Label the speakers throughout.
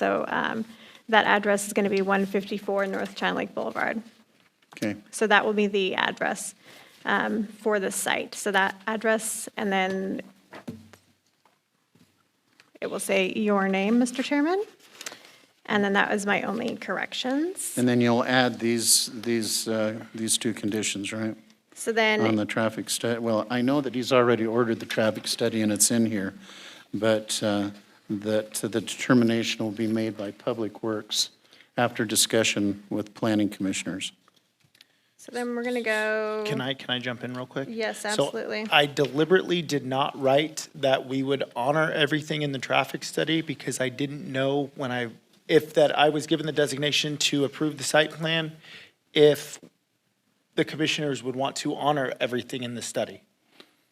Speaker 1: So um, that address is going to be 154 North China Lake Boulevard.
Speaker 2: Okay,
Speaker 1: So that will be the address um, for the site. So that address, and then it will say your name, Mr. Chairman. And then that was my only corrections.
Speaker 2: and then you'll add these, these, uh, these two conditions, right?
Speaker 1: So
Speaker 2: On
Speaker 1: then,
Speaker 2: the traffic study, well, I know that he's already ordered the traffic study and it's in here, but uh, that the determination will be made by Public Works after discussion with planning commissioners.
Speaker 1: so then we're going to go.
Speaker 3: Can I, can I jump in real quick?
Speaker 1: Mm-hmm. Yes,
Speaker 3: So
Speaker 1: absolutely.
Speaker 3: I deliberately did not write that we would honor everything in the traffic study because I didn't know when I, if that I was given the designation to approve the site plan, if the commissioners would want to honor everything in the study.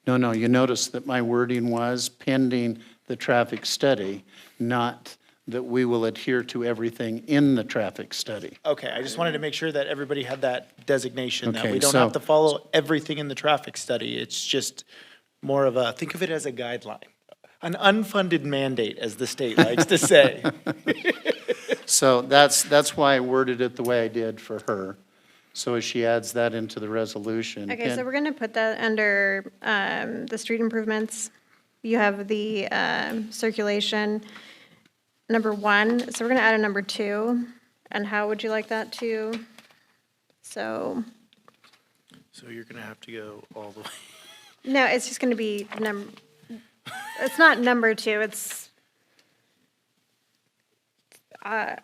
Speaker 2: No, no, you notice that my wording was pending the traffic study, not that we will adhere to everything in the traffic study.
Speaker 3: Okay, I just wanted to make sure that everybody had that designation, that
Speaker 2: Okay,
Speaker 3: we don't have
Speaker 2: so-
Speaker 3: to follow everything in the traffic study. It's just more of a, think of it as a guideline, an unfunded mandate, as the state likes to say.
Speaker 2: So that's, that's why I worded it the way I did for her. So as she adds that into the resolution.
Speaker 1: Okay, so
Speaker 2: and-
Speaker 1: we're going to put that under um, the street improvements. You have the um, circulation, number one, so we're going to add a number two. And how would you like that to? So,
Speaker 3: So you're gonna have to go all the way.
Speaker 1: no, it's just going to be num, it's not number two, it's uh,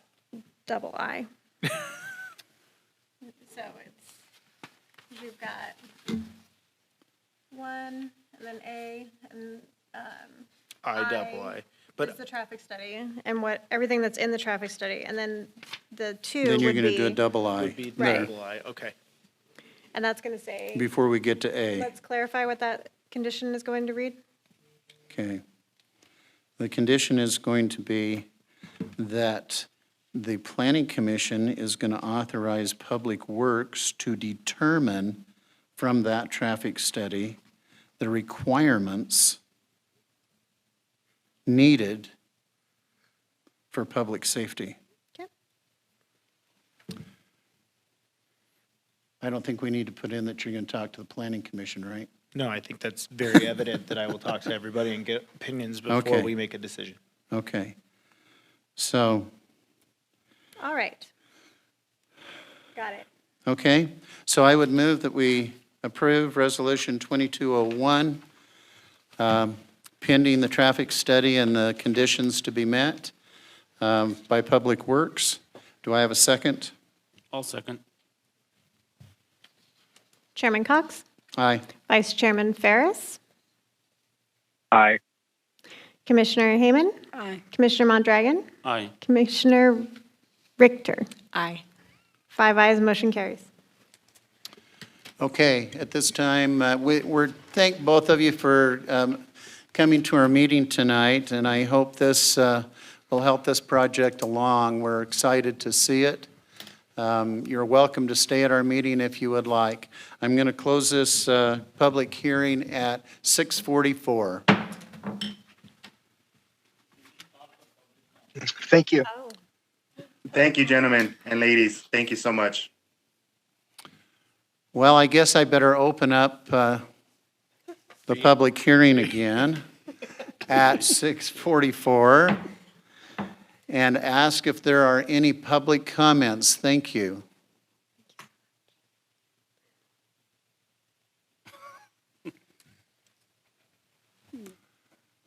Speaker 1: double I. So it's, we've got one, and then A, and
Speaker 3: I double
Speaker 1: I-
Speaker 3: I.
Speaker 1: It's
Speaker 3: But,
Speaker 1: the traffic study and what, everything that's in the traffic study, and then the two
Speaker 2: Then you're
Speaker 1: would
Speaker 2: going to do a
Speaker 1: be,
Speaker 2: double I
Speaker 3: be
Speaker 1: Right.
Speaker 3: double I, okay.
Speaker 1: and that's gonna say,
Speaker 2: before we get to A.
Speaker 1: let's clarify what that condition is going to read.
Speaker 2: Okay. The condition is going to be that the planning commission is going to authorize Public Works to determine from that traffic study the requirements needed for public safety.
Speaker 1: Okay.
Speaker 2: I don't think we need to put in that you're going to talk to the planning commission, right?
Speaker 3: No, I think that's very evident that I will talk to everybody and get opinions
Speaker 2: Okay.
Speaker 3: before we make a decision.
Speaker 2: Okay. So,
Speaker 1: All right. Got it.
Speaker 2: Okay, so I would move that we approve Resolution 2201, um, pending the traffic study and the conditions to be met um, by Public Works. Do I have a second?
Speaker 4: I'll second.
Speaker 1: Chairman Cox,
Speaker 2: Aye.
Speaker 1: Vice Chairman Ferris,
Speaker 5: Aye.
Speaker 1: Commissioner Hayman,
Speaker 6: Aye.
Speaker 1: Commissioner Mondragon,
Speaker 4: Aye.
Speaker 1: Commissioner Richter.
Speaker 6: Aye.
Speaker 1: Five ayes, motion carries.
Speaker 2: Okay, at this time, uh, we, we're, thank both of you for um, coming to our meeting tonight, and I hope this uh, will help this project along. We're excited to see it. Um, You're welcome to stay at our meeting if you would like. I'm going to close this uh, public hearing at 6:44.
Speaker 5: Thank you.
Speaker 1: Oh.
Speaker 7: Thank you, gentlemen and ladies. Thank you so much.
Speaker 2: Well, I guess I better open up uh, the public hearing again at 6:44 and ask if there are any public comments. Thank you.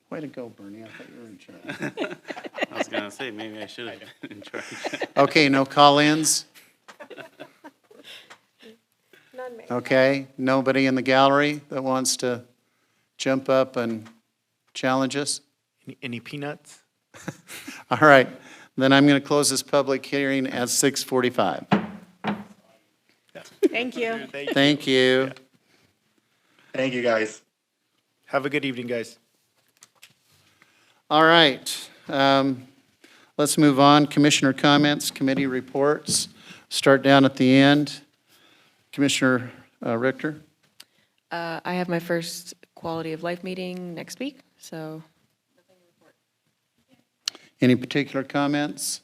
Speaker 2: Way to go, Bernie. I thought you were in charge.
Speaker 4: I was gonna say, maybe I should have been in charge.
Speaker 2: Okay, no call-ins?
Speaker 1: None made.
Speaker 2: Okay, nobody in the gallery that wants to jump up and challenge us?
Speaker 3: Any- Any peanuts?
Speaker 2: All right, then I'm going to close this public hearing at 6:45.
Speaker 6: Thank you.
Speaker 2: Thank you.
Speaker 7: Thank you, guys.
Speaker 3: Have a good evening, guys.
Speaker 2: All right, um, let's move on. Commissioner comments, committee reports. Start down at the end. Commissioner uh, Richter?
Speaker 6: Uh, I have my first quality of life meeting next week, so
Speaker 2: Any particular comments?